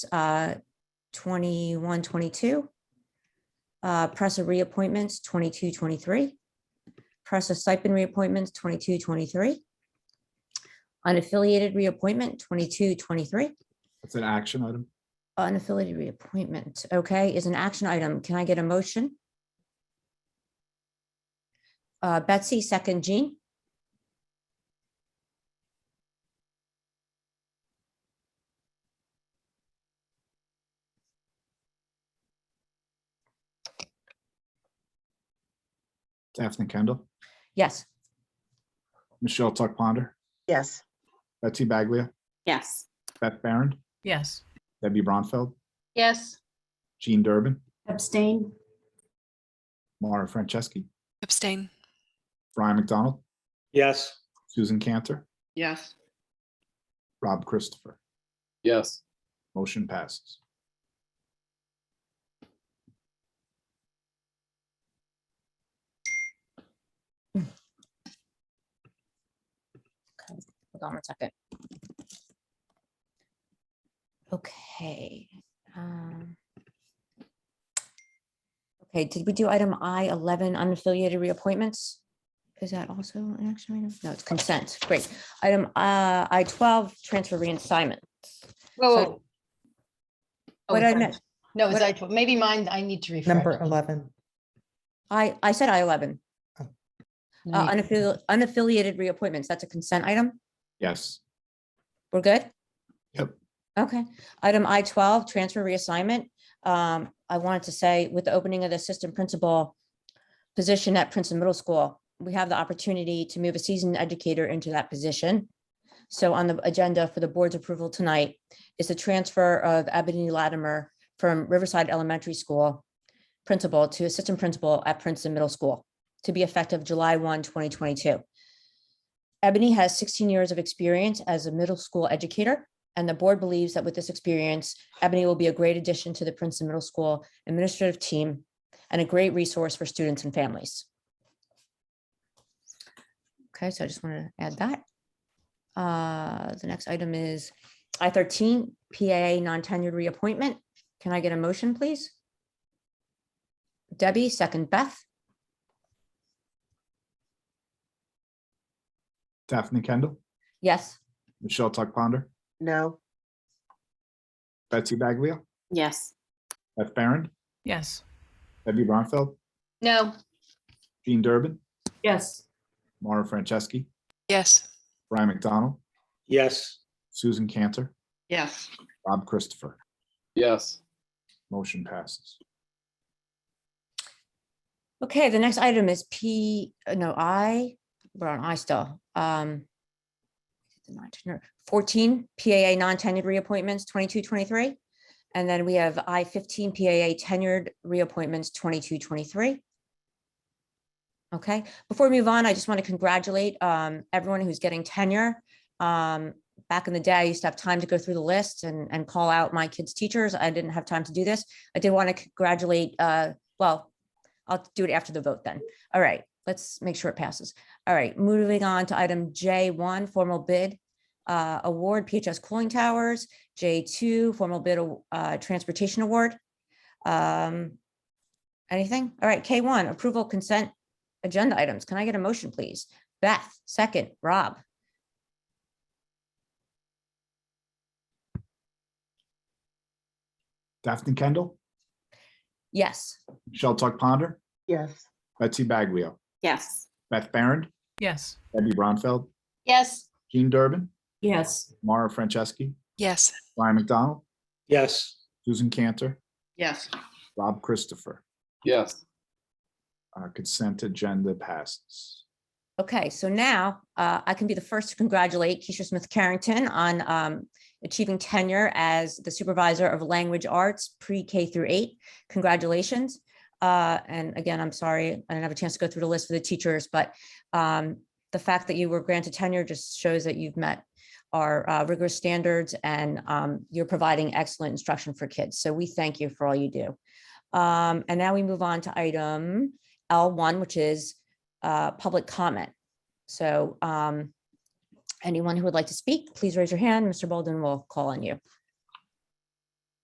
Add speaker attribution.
Speaker 1: uh, 21, 22. Uh, Presser reappointments, 22, 23. Presser stipend reappointments, 22, 23. Unaffiliated reappointment, 22, 23.
Speaker 2: That's an action item.
Speaker 1: Unaffiliated reappointment, okay, is an action item. Can I get a motion? Uh, Betsy, second Jean?
Speaker 2: Daphne Kendall,
Speaker 1: Yes,
Speaker 2: Michelle Tuck Ponder,
Speaker 3: Yes,
Speaker 2: Betsy Baglia,
Speaker 4: Yes.
Speaker 2: Beth Baron,
Speaker 5: Yes.
Speaker 2: Debbie Bronfeld,
Speaker 4: Yes.
Speaker 2: Jean Durbin,
Speaker 4: Abstain?
Speaker 2: Mara Franceschi,
Speaker 6: Abstain.
Speaker 2: Brian McDonald,
Speaker 7: yes,
Speaker 2: Susan Cantor,
Speaker 4: Yes.
Speaker 2: Rob Christopher.
Speaker 8: yes,
Speaker 2: Motion passes.
Speaker 1: hold on one second. Okay. um, Okay, did we do item I eleven unaffiliated reappointments? Is that also an action item? No, it's consent, great. Item uh, I twelve, transfer reassignment.
Speaker 9: Whoa.
Speaker 1: So-
Speaker 9: whoa. Oh,
Speaker 1: What
Speaker 9: it's
Speaker 1: I
Speaker 9: on-
Speaker 1: meant,
Speaker 9: No, it's
Speaker 1: what I-
Speaker 9: actual, maybe mine, I need to refresh.
Speaker 10: Number 11.
Speaker 1: I, I said I eleven. Uh,
Speaker 9: No need-
Speaker 1: unaffili- unaffiliated reappointments, that's a consent item.
Speaker 2: Yes,
Speaker 1: We're good?
Speaker 2: Yep.
Speaker 1: Okay. Item I twelve, transfer reassignment. Um, I wanted to say with the opening of the assistant principal position at Princeton Middle School, we have the opportunity to move a seasoned educator into that position. So on the agenda for the board's approval tonight is the transfer of Ebony Latimer from Riverside Elementary School principal to assistant principal at Princeton Middle School to be effective July 1, 2022. Ebony has 16 years of experience as a middle school educator, and the board believes that with this experience, Ebony will be a great addition to the Princeton Middle School administrative team and a great resource for students and families. Okay, so I just want to add that. Uh, The next item is I-13 PAA non-tenured reappointment. Can I get a motion, please? Debbie, second Beth,
Speaker 2: Daphne Kendall,
Speaker 1: yes.
Speaker 2: Michelle Tuck Ponder,
Speaker 3: no,
Speaker 2: Betsy Baglia,
Speaker 4: Yes.
Speaker 2: Beth Baron,
Speaker 5: Yes.
Speaker 2: Debbie Bronfeld,
Speaker 9: No,
Speaker 2: Jean Durbin,
Speaker 4: Yes.
Speaker 2: Mara Franceschi,
Speaker 6: Yes.
Speaker 2: Brian McDonald,
Speaker 7: yes,
Speaker 2: Susan Cantor,
Speaker 4: Yes.
Speaker 2: Rob Christopher.
Speaker 8: yes,
Speaker 2: Motion passes.
Speaker 1: Okay, the next item is P, uh, no, I, we're on I still. um, the non-tenure- Fourteen PAA non-tenured reappointments, 22, 23, And then we have I fifteen PAA tenured reappointments, 22, 23. Okay, before we move on, I just want to congratulate um, everyone who's getting tenure. Um, Back in the day, I used to have time to go through the list and, and call out my kids' teachers. I didn't have time to do this. I did want to congratulate, uh, well, I'll do it after the vote then. All right, let's make sure it passes. All right, moving on to item J1, formal bid uh, award, PHS cooling towers, J2, formal bid uh, transportation award. Um, Anything? All right, K1, approval consent agenda items. Can I get a motion, please? Beth, second, Rob,
Speaker 2: Daphne Kendall,
Speaker 1: yes.
Speaker 2: Michelle Tuck Ponder,
Speaker 3: yes,
Speaker 2: Betsy Baglia,
Speaker 4: Yes.
Speaker 2: Beth Baron,
Speaker 5: Yes.
Speaker 2: Debbie Bronfeld,
Speaker 9: yes,
Speaker 2: Jean Durbin,
Speaker 4: Yes.
Speaker 2: Mara Franceschi,
Speaker 6: Yes.
Speaker 2: Brian McDonald,
Speaker 7: yes,
Speaker 2: Susan Cantor,
Speaker 4: Yes.
Speaker 2: Rob Christopher.
Speaker 8: yes,
Speaker 2: Uh, Consent agenda passes.
Speaker 1: Okay, so now uh, I can be the first to congratulate Keisha Smith Carrington on um, achieving tenure as the supervisor of language arts pre-K through eight. Congratulations. Uh, And again, I'm sorry, I didn't have a chance to go through the list for the teachers, but um, the fact that you were granted tenure just shows that you've met our uh, rigorous standards and um, you're providing excellent instruction for kids. So we thank you for all you do. Um, And now we move on to item L1, which is uh, public comment. So um, anyone who would like to speak, please raise your hand. Mr. Bolden will call on you.